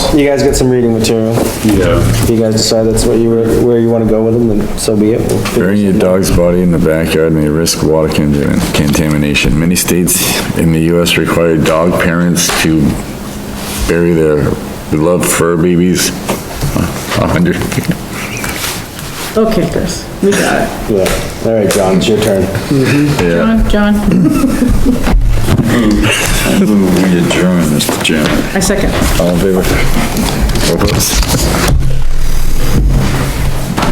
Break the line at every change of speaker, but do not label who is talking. You guys get some reading material.
Yeah.
If you guys decide that's what you, were- where you wanna go with them, then so be it. We'll figure
Burying your dog's body in the backyard may risk water contam- contamination. Many states in the US require dog parents to bury their beloved fur babies. A hundred,
Okay, Chris, we got it.
Yeah, all right, John, it's your turn.
yeah.
John, John,
We adjourn, Mr. Chairman.
I second.
All in favor? All opposed?